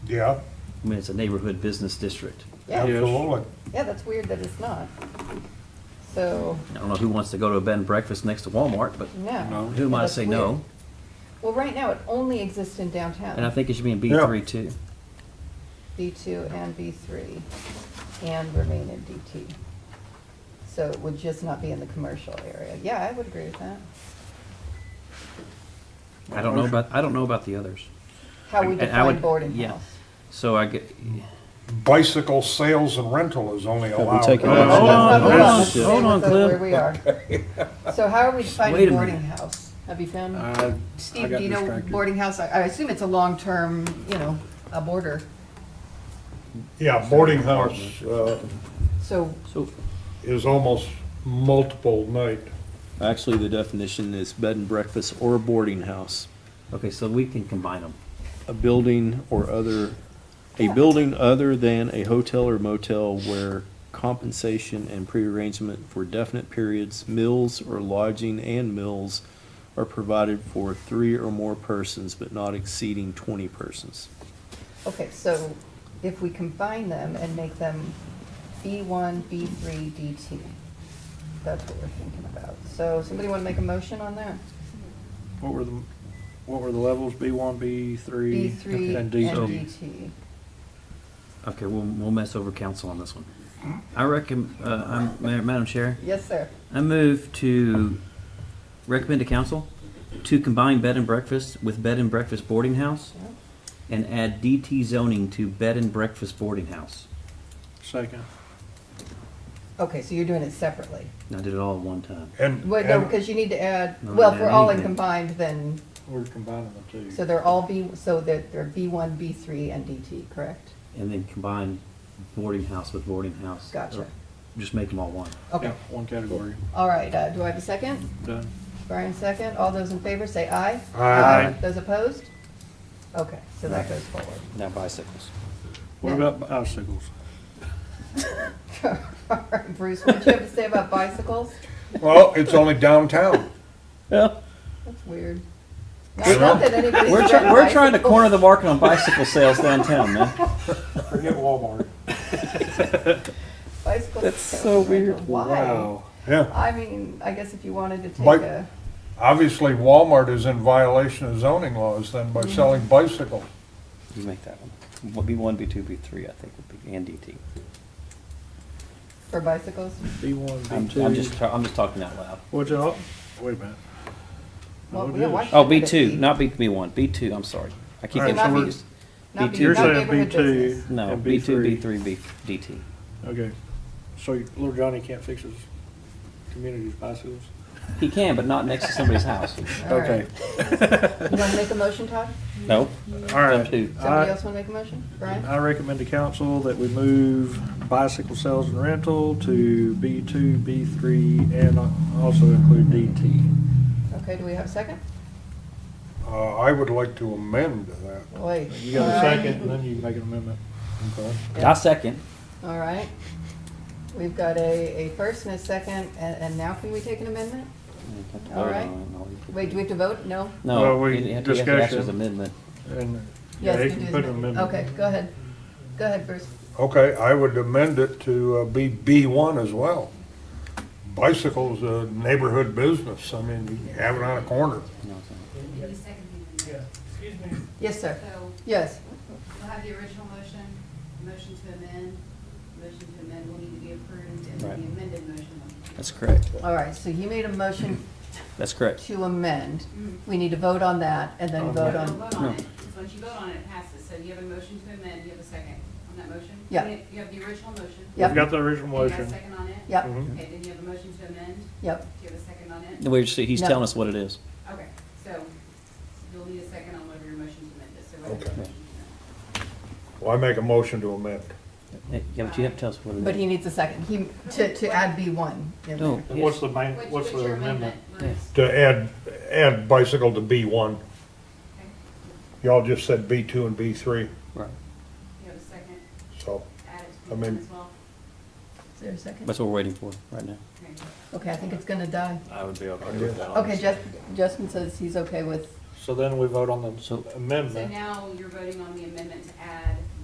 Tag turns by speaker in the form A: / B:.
A: Yeah,
B: I mean, it's a neighborhood business district.
C: Yeah.
A: yeah, absolutely.
D: Yeah, that's weird that it's not. So,
B: I don't know who wants to go to a bed and breakfast next to Walmart, but
D: no.
B: who am I to
D: That's
B: say
D: weird.
B: no?
D: Well, right now, it only exists in downtown.
B: And I think it should be in B
A: Yeah.
B: three too.
D: B2 and B3, and remain in DT. So it would just not be in the commercial area. Yeah, I would agree with that.
B: I don't know about, I don't know about the others.
D: How we
B: And I would-
D: define boarding
B: yeah.
D: house.
B: So I get,
A: Bicycle sales and rental is only
E: we
A: allowed.
E: take it
A: in-
E: out?
B: Hold on,
D: Let's not-
B: hold
D: let's
B: on,
D: not stay
B: hold on,
D: with
B: Cliff.
D: Where we are. So how are we
B: wait
D: defining
B: a
D: boarding
B: minute.
D: house? Have you found,
C: Uh, I- I
D: Steve,
C: got
D: do you know
C: distracted.
D: boarding house? I I assume it's a long-term, you know, a boarder.
A: Yeah, boarding house uh,
D: So
B: so,
A: is almost multiple night.
E: Actually, the definition is bed and breakfast or boarding house,
B: okay, so we can combine them.
E: a building or other, a building other than a hotel or motel where compensation and prearrangement for definite periods, meals or lodging and meals are provided for three or more persons, but not exceeding twenty persons.
D: Okay, so if we combine them and make them B1, B3, DT, that's what we're thinking about. So somebody want to make a motion on that?
C: What were the, what were the levels? B one, B three?
D: B3 and
C: DT.
D: DT.
B: Okay, we'll, we'll mess over council on this one. I reckon, uh, I'm, Ma- Madam Chair,
D: Yes, sir.
B: I move to recommend to council to combine bed and breakfast with bed and breakfast boarding house
D: Yeah.
B: and add DT zoning to bed and breakfast boarding house.
C: Second.
D: Okay, so you're doing it separately.
B: And I did it all at one time.
A: And,
D: Wait, no,
A: and
D: because you need to add,
B: No,
D: well, if we're all in
B: anything.
D: combined, then,
C: We're combining the two.
D: so they're all B, so that they're B1, B3, and DT, correct?
B: And then combine boarding house with boarding house.
D: Gotcha.
B: Or Just make them all one.
D: Okay,
C: Yeah, One category,
D: all right, uh, do I have a second?
C: done.
D: Brian, second. All those in favor, say aye.
A: Aye.
D: Those opposed? Okay, so that goes forward.
E: Now bicycles.
C: What
D: Now-
C: about bicycles?
D: All right, Bruce, what do you have to say about bicycles?
A: well, it's only downtown.
D: That's weird. Not not that anybody's
B: We're,
D: riding
B: try- we're trying to
D: bicycles.
B: corner the market on bicycle sales downtown, man.
A: Forget Walmart.
D: Bicycles
E: That's
D: are
E: so weird.
D: rental. Why?
C: Wow.
A: Yeah,
D: I mean, I guess if you wanted to take
A: Bike-
D: a,
A: obviously Walmart is in violation of zoning laws then by selling bicycles.
B: You make that one. What B one, B two, B three, I think would be, and DT.
D: for bicycles,
C: B one,
B: I'm,
C: B
B: I'm just,
C: two.
B: try- I'm just talking out loud.
C: What's up? Wait a minute.
D: well,
C: What
D: yeah, why
C: is?
D: should
B: Oh, B
D: it
B: two,
D: be?
B: not B, B one, B two, I'm sorry. I keep
C: All right,
B: getting
D: so we're-
B: confused.
D: Not
B: B2.
D: be-
C: You're
D: not
C: saying
D: neighborhood
C: B two.
D: business.
B: No,
C: and
B: B two, B three, B, DT.
C: Okay, so you- little Johnny can't fix his community's bicycles?
B: He can, but not next to somebody's house.
D: All right. You want to make a motion, Todd?
B: No?
C: All
B: Them
C: right.
B: two.
D: Somebody
C: I,
D: else want to make a motion? Brian?
C: I recommend to council that we move bicycle sales and rental to B two, B three, and also include DT.
D: Okay, do we have a second?
A: Uh, I would like to amend that.
D: Wait.
C: You got a
D: all right.
C: second, and then you make an amendment.
A: Okay.
B: I second.
D: All right. We've got a, a first and a second, and, and now can we take an amendment? All right. Wait, do we have to vote? No?
C: Well,
B: No,
C: we-
B: you have to you have to ask as
C: discussion.
B: amendment.
C: And, yeah,
D: Yes,
C: they
D: we
C: can
D: do
C: put
D: the
C: an
D: amendment.
C: amendment.
D: Okay, go ahead. Go ahead, Bruce.
A: Okay, I would amend it to uh, be B1 as well. Bicycles, a neighborhood business, I mean, you can have it on a corner.
B: No, it's not.
D: Yes, sir.
F: So
D: Yes.
F: we'll have the original motion, motion to amend, motion to amend will need to be approved, and
B: Right.
F: then the amended motion.
B: That's correct.
D: All right, so you made a motion
B: That's correct.
D: to amend. We need to vote on that and
C: Oh,
D: then vote
F: Don't
D: on,
F: vote on it, 'cause once you vote on it, it passes. So you have a motion to amend, you have a second on that motion?
D: Yeah.
F: You you have the original motion.
D: Yep.
C: We've got the original
F: And you
C: motion.
F: have a
C: Mm-hmm.
F: second on it?
D: yep,
F: Okay, then you have a motion to amend,
D: yep.
F: do you have a second on it?
B: We're just, he's
D: No.
B: telling us what it is.
F: Okay, so you'll need a second on whatever your motion to amend is, so. whatever your
A: Okay.
F: motion to amend.
A: Well, I make a motion to amend.
B: Yeah, but you have to tell us what it is.
D: But he needs a second. He, to, to add B one. in there.
B: No.
C: What's the main,
F: What's-
C: what's the
F: your
C: amendment?
F: Lewis?
A: To add, add bicycle to B1. Y'all just said B2 and B3,
B: Right.
F: You have a second,
A: so,
F: add it
A: I
F: to the amendment
A: mean-
F: as well?
D: Is there a second?
B: That's what we're waiting for right now.
F: Okay.
D: Okay, I think it's gonna die.
B: I would be okay
A: with that,
D: Okay, Jus- Justin says he's okay with,
C: So then we vote on
B: So-
C: the
F: So
C: amendment.
F: now you're voting on the amendment to add